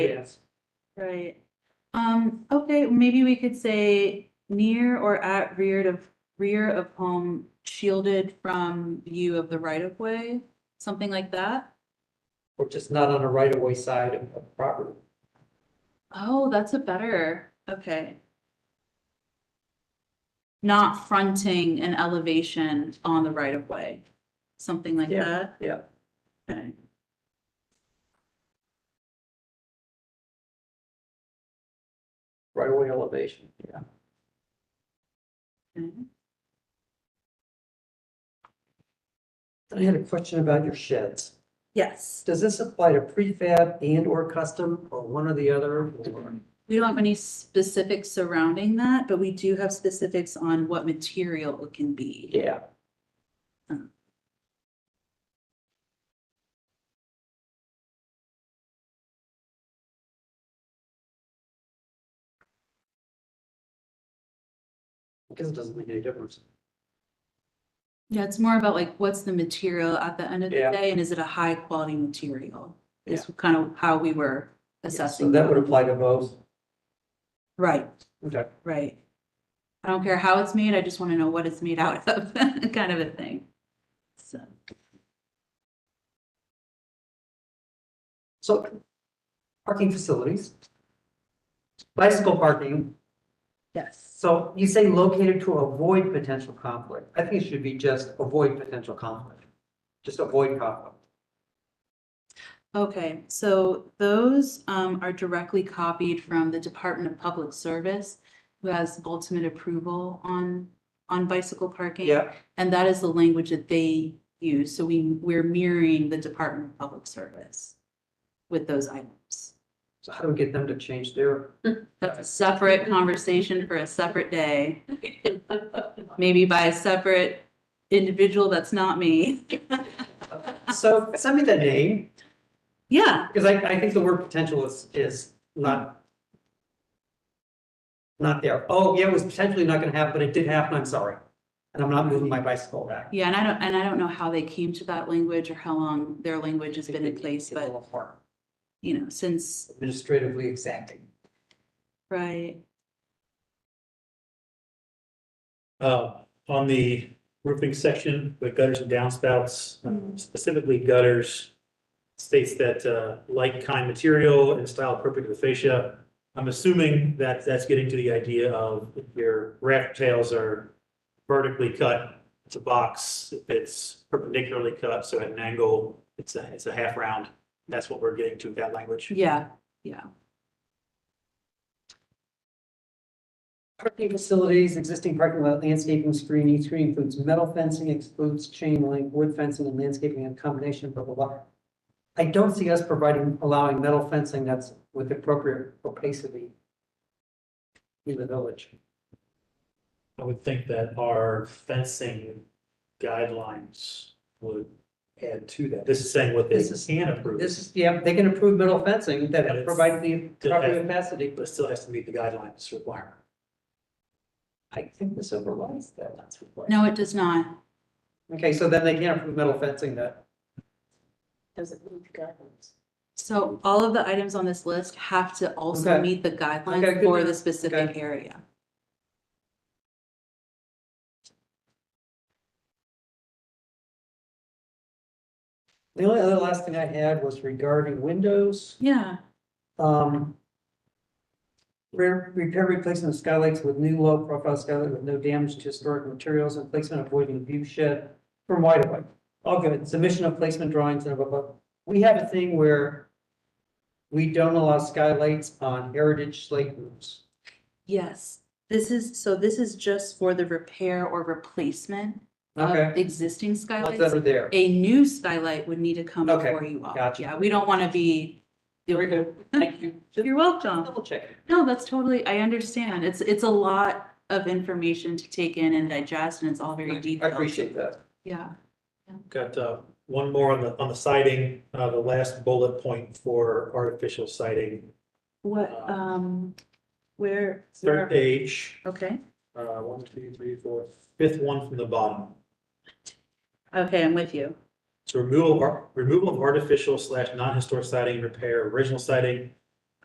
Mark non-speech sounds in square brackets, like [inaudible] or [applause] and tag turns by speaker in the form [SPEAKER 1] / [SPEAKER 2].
[SPEAKER 1] Yes.
[SPEAKER 2] Right. Um, okay, maybe we could say near or at rear of, rear of home shielded from view of the right of way, something like that.
[SPEAKER 1] Or just not on a right of way side of of property.
[SPEAKER 2] Oh, that's a better, okay. Not fronting an elevation on the right of way, something like
[SPEAKER 1] Yeah.
[SPEAKER 2] that.
[SPEAKER 1] Yeah.
[SPEAKER 2] Okay.
[SPEAKER 1] Right of way elevation, yeah.
[SPEAKER 2] okay.
[SPEAKER 1] I had a question about your sheds.
[SPEAKER 2] Yes,
[SPEAKER 1] Does this apply to prefab and or custom or one or the other? or-
[SPEAKER 2] we don't have any specifics surrounding that, but we do have specifics on what material it can be.
[SPEAKER 1] Yeah. I guess it doesn't make any difference.
[SPEAKER 2] Yeah, it's more about like, what's the material at the end of the
[SPEAKER 1] Yeah.
[SPEAKER 2] day, and is it a high quality material? Is kind of how we were
[SPEAKER 1] So
[SPEAKER 2] assessing.
[SPEAKER 1] that would
[SPEAKER 2] them.
[SPEAKER 1] apply to both.
[SPEAKER 2] Right,
[SPEAKER 1] Okay.
[SPEAKER 2] right. I don't care how it's made, I just want to know what it's made out of, [laughs] kind of a thing. So,
[SPEAKER 1] So parking facilities. Bicycle parking,
[SPEAKER 2] yes.
[SPEAKER 1] so you say located to avoid potential conflict. I think it should be just avoid potential conflict. Just avoid conflict.
[SPEAKER 2] Okay, so those um are directly copied from the Department of Public Service, who has ultimate approval on on bicycle parking.
[SPEAKER 1] Yeah,
[SPEAKER 2] And that is the language that they use, so we, we're mirroring the Department of Public Service with those items.
[SPEAKER 1] so how do we get them to change their,
[SPEAKER 2] That's a separate conversation for a separate day. Maybe by a separate individual that's not me.
[SPEAKER 1] so send me the name.
[SPEAKER 2] Yeah,
[SPEAKER 1] Because I, I think the word potential is, is not. Not there. Oh, yeah, it was potentially not gonna happen, but it did happen, I'm sorry. And I'm not moving my bicycle back.
[SPEAKER 2] yeah, and I don't, and I don't know how they came to that language or how long their language has been in place,
[SPEAKER 1] It's a
[SPEAKER 2] but,
[SPEAKER 1] little hard.
[SPEAKER 2] you know, since,
[SPEAKER 1] Administratively exacting.
[SPEAKER 2] right,
[SPEAKER 3] Uh, on the roofing section, the gutters and downspouts, um, specifically gutters, states that, uh, like kind material and style appropriate to the fascia. I'm assuming that that's getting to the idea of if your raft tails are vertically cut, it's a box, if it's perpendicularly cut, so at an angle, it's a, it's a half round. That's what we're getting to with that language.
[SPEAKER 2] yeah,
[SPEAKER 1] Parking facilities, existing parking lot, landscaping, screening, screening includes metal fencing, excludes chain link, wood fencing and landscaping in combination, blah, blah, blah. I don't see us providing, allowing metal fencing that's with appropriate opacity. In the village.
[SPEAKER 3] I would think that our fencing guidelines would add to that. This is saying what they
[SPEAKER 1] This is-
[SPEAKER 3] can approve.
[SPEAKER 1] This is, yeah, they can approve metal fencing
[SPEAKER 3] But
[SPEAKER 1] that
[SPEAKER 3] it's-
[SPEAKER 1] provides the proper
[SPEAKER 3] Okay.
[SPEAKER 1] opacity.
[SPEAKER 3] But still has to meet the guidelines requirement.
[SPEAKER 1] I think this overrides that.
[SPEAKER 2] no, it does not.
[SPEAKER 1] Okay, so then they can't approve metal fencing that. Does it meet the guidelines?
[SPEAKER 2] So all of the items on this list have to also
[SPEAKER 1] Okay.
[SPEAKER 2] meet the
[SPEAKER 1] Okay,
[SPEAKER 2] guidelines
[SPEAKER 1] good
[SPEAKER 2] for
[SPEAKER 1] enough.
[SPEAKER 2] the specific
[SPEAKER 1] Okay.
[SPEAKER 2] area.
[SPEAKER 1] The only other last thing I had was regarding windows.
[SPEAKER 2] Yeah,
[SPEAKER 1] Um. Repair, repair replacement of skylights with new low profile skylight with no damage to historic materials and placement avoiding view shed from wide away. All good, submission of placement drawings and blah, blah, blah. We have a thing where. We don't allow skylights on heritage slate roofs.
[SPEAKER 2] yes. This is, so this is just for the repair or replacement
[SPEAKER 1] Okay,
[SPEAKER 2] of existing
[SPEAKER 1] ones that
[SPEAKER 2] skylights.
[SPEAKER 1] are there.
[SPEAKER 2] A new skylight would need to come
[SPEAKER 1] Okay,
[SPEAKER 2] before you all.
[SPEAKER 1] gotcha.
[SPEAKER 2] Yeah, we don't want to be.
[SPEAKER 1] Very good. Thank you. Just
[SPEAKER 2] [laughs] You're welcome.
[SPEAKER 1] double check.
[SPEAKER 2] No, that's totally, I understand. It's, it's a lot of information to take in and digest and it's all very
[SPEAKER 1] I
[SPEAKER 2] detailed.
[SPEAKER 1] appreciate that.
[SPEAKER 2] Yeah,
[SPEAKER 3] Got uh, one more on the, on the siding, uh, the last bullet point for artificial siding.
[SPEAKER 2] what,
[SPEAKER 3] Uh,
[SPEAKER 2] um, where?
[SPEAKER 3] Third
[SPEAKER 2] where-
[SPEAKER 3] page,
[SPEAKER 2] Okay.
[SPEAKER 3] uh, one, two, three, four, fifth one from the bottom.
[SPEAKER 2] Okay, I'm with you.
[SPEAKER 3] So removal, of ar- removal of artificial slash non-historic siding, repair original siding,